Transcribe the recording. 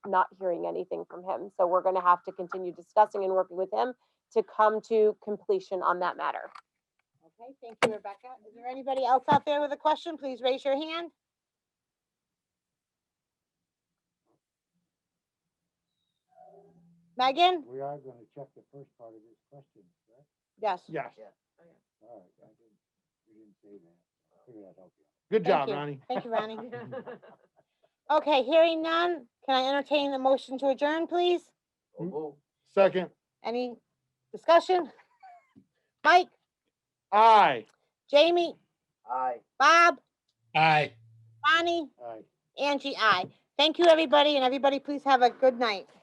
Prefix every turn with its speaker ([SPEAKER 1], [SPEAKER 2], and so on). [SPEAKER 1] not hearing anything from him. So we're going to have to continue discussing and working with him to come to completion on that matter.
[SPEAKER 2] Okay, thank you, Rebecca. Is there anybody else out there with a question? Please raise your hand. Megan?
[SPEAKER 3] We are gonna check the first part of this question, correct?
[SPEAKER 2] Yes.
[SPEAKER 4] Yes.
[SPEAKER 3] All right, I didn't, you didn't say that. I figured I'd help you.
[SPEAKER 4] Good
[SPEAKER 2] Thank
[SPEAKER 4] job,
[SPEAKER 2] you.
[SPEAKER 4] Ronnie.
[SPEAKER 2] Thank you, Ronnie. Okay, hearing none, can I entertain the motion to adjourn, please?
[SPEAKER 4] Second,
[SPEAKER 2] Any discussion? Mike,
[SPEAKER 4] aye.
[SPEAKER 2] Jamie,
[SPEAKER 5] Aye.
[SPEAKER 2] Bob,
[SPEAKER 6] Aye.
[SPEAKER 2] Bonnie,
[SPEAKER 3] All right.
[SPEAKER 2] Angie, I. Thank you, everybody, and everybody, please have a good night.